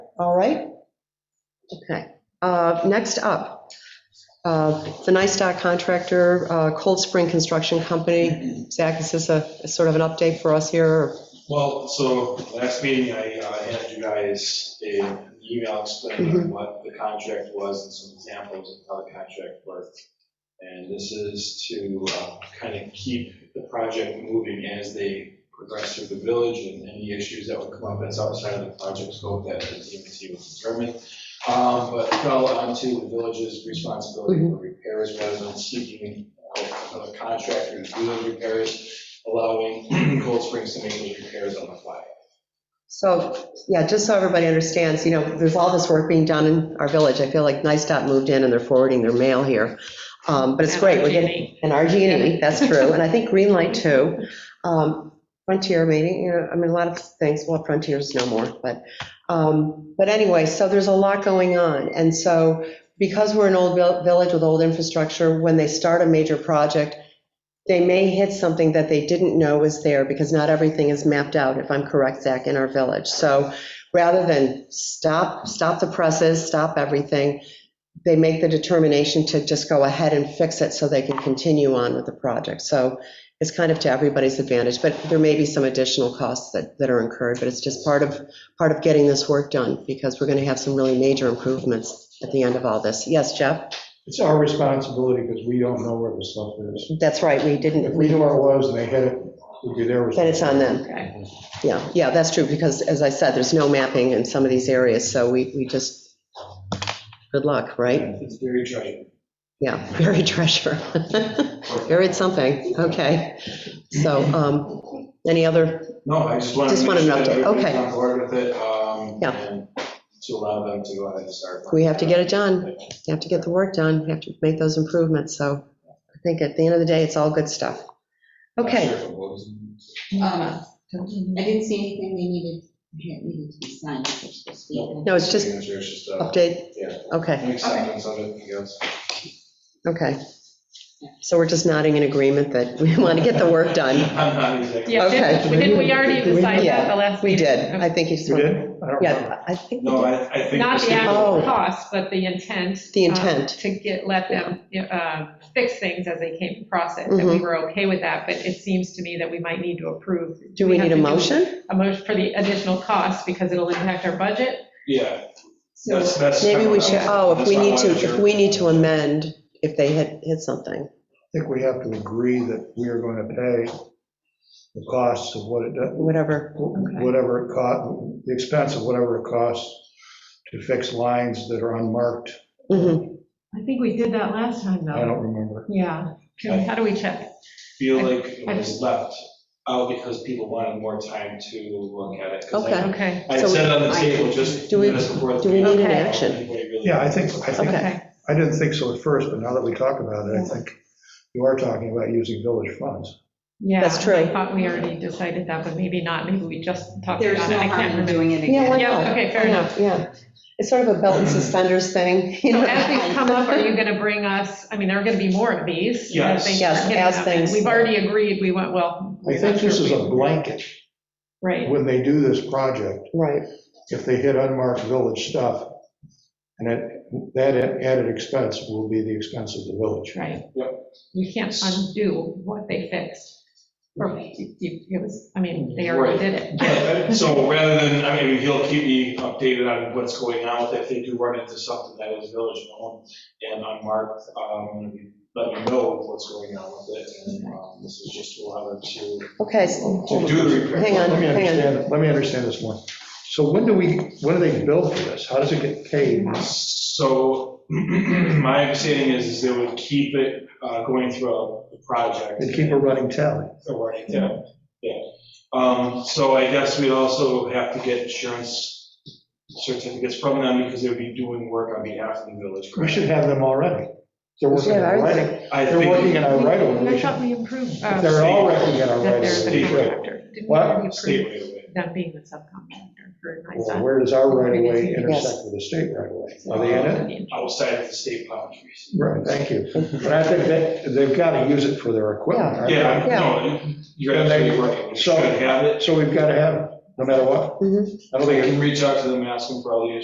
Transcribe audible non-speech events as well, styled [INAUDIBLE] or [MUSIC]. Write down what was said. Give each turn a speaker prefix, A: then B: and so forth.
A: All right? Okay. Uh, Next up, uh, the NISTOC contractor, uh, Cold Spring Construction Company. Zach, is this a a sort of an update for us here? or-
B: Well, so last meeting, I uh, handed you guys an email explaining what the contract was and some examples of how the contract worked. And this is to kind of keep the project moving as they progress through the village and any issues that would come up that's outside of the project scope that the DMT would determine. Um, But fell onto the village's responsibility for repairs rather than seeking out another contractor to do those repairs allowing [CLEARS THROAT] Cold Springs to make those repairs on the fly.
A: So, yeah, just so everybody understands, you know, there's all this work being done in our village. I feel like NISTOC moved in and they're forwarding their mail here. Um, But it's great, we're getting, and RG&E, that's true, and I think Green Light too. Um, Frontier maybe, you know, I mean, a lot of things, well, Frontier's no more, but, um, but anyway, so there's a lot going on. And so because we're an old vil- village with old infrastructure, when they start a major project, they may hit something that they didn't know was there because not everything is mapped out, if I'm correct, Zach, in our village. So rather than stop, stop the presses, stop everything, they make the determination to just go ahead and fix it so they can continue on with the project. So it's kind of to everybody's advantage, but there may be some additional costs that, that are incurred, but it's just part of, part of getting this work done, because we're going to have some really major improvements at the end of all this. Yes, Jeff?
C: It's our responsibility because we don't know where the stuff is.
A: That's right, we
C: If
A: didn't,
C: we
A: we-
C: knew where it was and they hit it, it'd be their
A: then it's on
C: responsibility.
A: them. Yeah, yeah, that's true, because as I said, there's no mapping in some of these areas, so we, we just, good luck, right?
B: It's very tricky.
A: Yeah, [LAUGHS] buried treasure. Buried something, okay. So, um, any other,
B: No, I just wanted to.
A: Just want an
B: make sure that
A: update,
B: everybody's
A: okay.
B: On board with it, um,
A: Yeah.
B: and to allow them to go ahead and start.
A: we have to get it done, we have to get the work done, we have to make those improvements, so I think at the end of the day, it's all good stuff. Okay,
D: Um, I didn't see anything we needed, that needed to be signed, which was supposed to be.
A: no, it's just
B: Signatures, just, uh,
A: update,
B: yeah,
A: okay,
B: an acceptance of it, I guess.
A: okay. So we're just nodding in agreement that we [LAUGHS] want to get the work done.
B: [LAUGHS] I'm not exactly.
E: Yeah,
A: Okay.
E: did- we did, we already
C: Did we-
E: decided
A: yeah,
E: that the last.
A: We did,
E: meeting.
A: I think you just,
C: You did?
A: want-
C: I don't remember.
A: yeah, I think,
B: No, I, I think.
E: Not
B: this
E: the
B: is-
E: actual
A: Oh.
E: cost, but the intent.
A: The
E: um,
A: intent.
E: To get, let them you know, uh, fix things as they came across it, and we
A: Mhm.
E: were okay with that, but it seems to me that we might need to approve.
A: do we
E: have
A: need a
E: to do
A: motion?
E: A motion for the additional cost, because it'll impact our budget.
B: Yeah,
E: So
B: that's, that's.
A: Maybe we should,
B: kind of-
A: oh, if
B: that's
A: we
B: why I
A: need to,
B: wanted
A: if we need to amend, if they hit, hit something.
C: I think we have to agree that we are going to pay the costs of what it, does-
A: whatever.
C: whatever it cost, the expense of whatever it costs to fix lines that are unmarked.
A: Mhm.
E: I think we did that last time,
C: I don't remember.
E: Yeah. Can- How do we check?
B: Feel like it was left out because people wanted more time to look at it. 'cause I-
A: Okay.
E: Okay,
B: I
A: So we-
B: said on the table just
A: Do we-
B: minutes before. the
A: do we need
E: an
B: meeting, I don't
A: action?
B: think anybody really-
C: Yeah, I think, I think,
A: Okay.
E: okay.
C: I didn't think so at first, but now that we talk about it, I think you are talking about using village funds.
E: Yeah.
A: That's true.
E: I thought we already decided that, but maybe not, maybe we just talked about it.
D: There's no
E: I can't
D: harm in
E: remember.
D: doing it
A: Yeah, why
D: again.
E: Yeah,
A: not?
E: okay, fair
A: Why
E: enough.
A: not? Yeah, it's sort of a belt and suspenders thing, you
E: So
A: know?
E: as these come up, are you going to bring us, I mean, there are going to be more of these. you know,
B: Yes.
E: things
A: Yes,
E: are getting
A: as
E: up,
A: things-
E: and We've already agreed, we went, well.
C: I think this is a blanket
E: Right,
C: when they do this project.
A: Right,
C: if they hit unmarked village stuff, and that, that added expense will be the expense of the village.
E: right.
B: Yep.
E: You can't undo what they fixed. Or you, you- it was, I mean, they already did it.
B: So rather than, I mean, he'll keep me updated on what's going on with it, if they do run into something that is village owned and unmarked, um, let me know what's going on with it, and um, this is just to allow them to,
A: okay, so-
B: to do the repair.
A: Hang on,
C: Let me
A: hang on.
C: understand, let me understand this one. So when do we, when do they bill for this? How does it get paid?
B: So [CLEARS THROAT] my understanding is, is they would keep it uh, going throughout the project.
C: They keep a running tally.
B: The warning, yeah, yeah. Um, So I guess we'd also have to get insurance certificates from them because they would be doing work on behalf of the village.
C: We should have them already. They're working in our right of,
B: I
C: they're
B: think
C: working in our Uh, right of
E: I
C: way.
E: thought we approved
C: If
E: um,
C: They're all working in our right
E: that they're
C: of
E: the
B: Steve, right.
C: way.
E: contractor. Didn't we
C: What?
E: already
B: state
E: approve
B: right away.
E: them being the subcontractor for
C: Well,
E: NISA?
C: where does our right of way intersect with the state right of way? Are they in it?
B: outside of the state boundaries.
C: Right, thank you. But I think that, they've got to use it for their equipment. aren't they?
B: Yeah,
A: Yeah.
B: no, you're absolutely right. We should
C: So-
B: have it.
C: So we've got to have it, no matter what.
A: Mhm.
C: I don't
B: We
C: think it
B: can reach out to them, ask them for all the